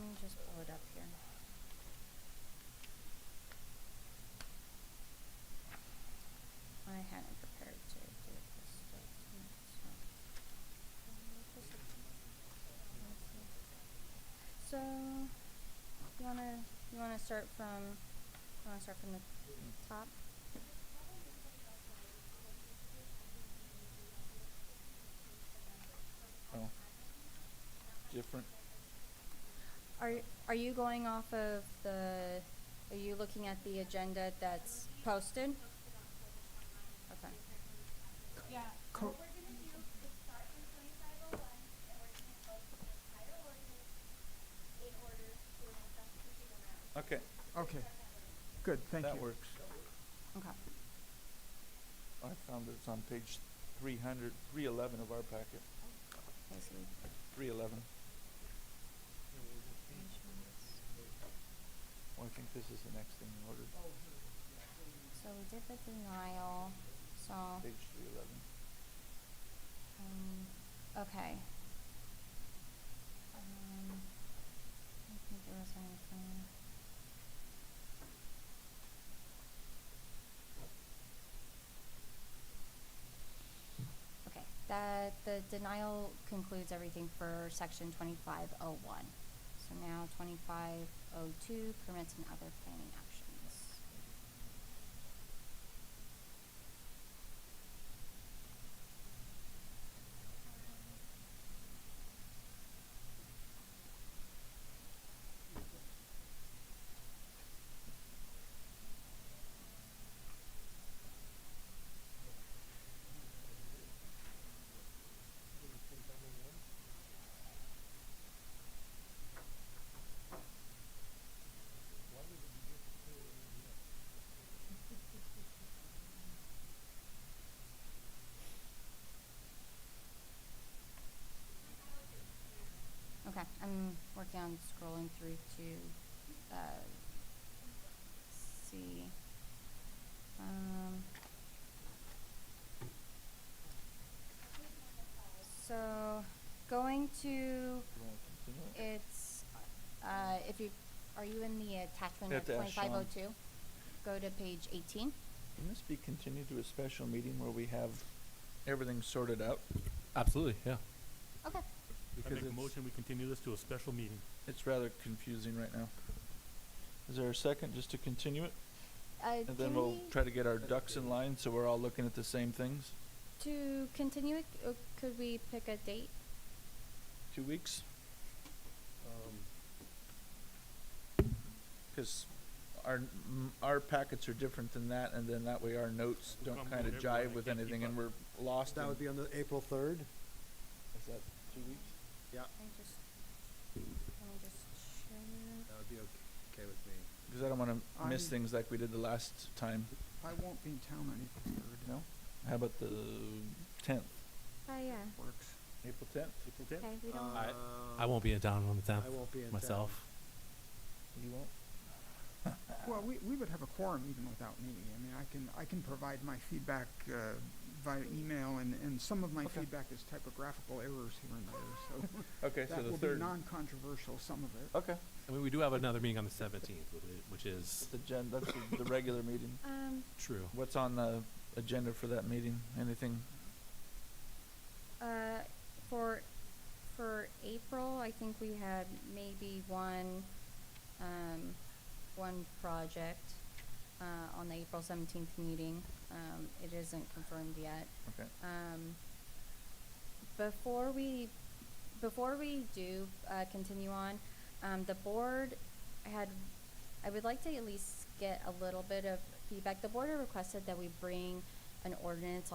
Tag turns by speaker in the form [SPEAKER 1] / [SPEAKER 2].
[SPEAKER 1] You wanna you wanna start from you wanna start from the top?
[SPEAKER 2] Oh. Different.
[SPEAKER 1] Are are you going off of the are you looking at the agenda that's posted? Okay.
[SPEAKER 3] Yeah.
[SPEAKER 4] Cor-
[SPEAKER 2] Okay,
[SPEAKER 4] Okay, good, thank
[SPEAKER 2] that
[SPEAKER 4] you.
[SPEAKER 2] works.
[SPEAKER 1] Okay.
[SPEAKER 2] I found it's on page 300, 311 of our packet.
[SPEAKER 1] Okay, so we
[SPEAKER 2] 311. Well, Oh, I think this is the next thing in order.
[SPEAKER 1] so we did the denial, so
[SPEAKER 2] Page 311.
[SPEAKER 1] um okay. Um I think there was anything Okay, that, the denial concludes everything for section twenty-five oh one. So now twenty-five oh two, permits and other planning actions. Okay, I'm working on scrolling through to, uh, see, um. So, going to,
[SPEAKER 2] You wanna continue it?
[SPEAKER 1] it's, uh, if you, are you in the attachment of
[SPEAKER 2] Have to ask Sean.
[SPEAKER 1] twenty-five oh two? Go to page eighteen.
[SPEAKER 2] Can this be continued to a special meeting where we have everything sorted out?
[SPEAKER 5] Absolutely, yeah.
[SPEAKER 1] Okay,
[SPEAKER 3] I
[SPEAKER 2] Because
[SPEAKER 3] make a
[SPEAKER 2] it's-
[SPEAKER 3] motion, we continue this to a special meeting.
[SPEAKER 2] It's rather confusing right now. Is there a second just to continue it?
[SPEAKER 1] uh,
[SPEAKER 2] And
[SPEAKER 1] can
[SPEAKER 2] then we'll
[SPEAKER 1] we,
[SPEAKER 2] try to get our ducks in line so we're all looking at the same things.
[SPEAKER 1] to continue it, uh, could we pick a date?
[SPEAKER 2] Two weeks? Um, Because our, m- our packets are different than that, and then that way our notes
[SPEAKER 3] We'll
[SPEAKER 2] don't
[SPEAKER 3] come
[SPEAKER 2] kind of
[SPEAKER 3] whenever, I
[SPEAKER 2] jive with
[SPEAKER 3] can't keep
[SPEAKER 2] anything and
[SPEAKER 3] up.
[SPEAKER 2] we're lost.
[SPEAKER 6] That
[SPEAKER 2] in-
[SPEAKER 6] would be on the April third.
[SPEAKER 2] Is that two weeks?
[SPEAKER 6] Yeah,
[SPEAKER 1] Let me just, let me just check.
[SPEAKER 6] that would be okay with me.
[SPEAKER 2] Because I don't want to miss
[SPEAKER 4] I'm-
[SPEAKER 2] things like we did the last time.
[SPEAKER 4] I won't be in town on April third,
[SPEAKER 2] No? How about the tenth?
[SPEAKER 1] Oh, yeah.
[SPEAKER 4] works.
[SPEAKER 2] April tenth?
[SPEAKER 3] April tenth?
[SPEAKER 1] Okay, we don't.
[SPEAKER 2] Uh,
[SPEAKER 5] I- I won't be in town on the tenth
[SPEAKER 6] I won't be in town.
[SPEAKER 5] myself.
[SPEAKER 2] You won't?
[SPEAKER 4] Well, we, we would have a quorum even without me. I mean, I can, I can provide my feedback uh, via email, and, and some of my
[SPEAKER 2] Okay.
[SPEAKER 4] feedback is typographical errors here and there, so
[SPEAKER 2] Okay, so
[SPEAKER 4] that
[SPEAKER 2] the
[SPEAKER 4] will be
[SPEAKER 2] third.
[SPEAKER 4] non-controversial, some of it.
[SPEAKER 2] Okay,
[SPEAKER 5] I mean, we do have another meeting on the seventeenth, which is
[SPEAKER 2] the gen, that's the- the regular meeting.
[SPEAKER 1] Um,
[SPEAKER 5] true.
[SPEAKER 2] What's on the agenda for that meeting? Anything?
[SPEAKER 1] uh, for, for April, I think we had maybe one, um, one project, uh, on the April seventeenth meeting. Um, it isn't confirmed yet.
[SPEAKER 2] Okay.
[SPEAKER 1] Um, before we, before we do, uh, continue on, um, the board had, I would like to at least get a little bit of feedback. The board had requested that we bring an ordinance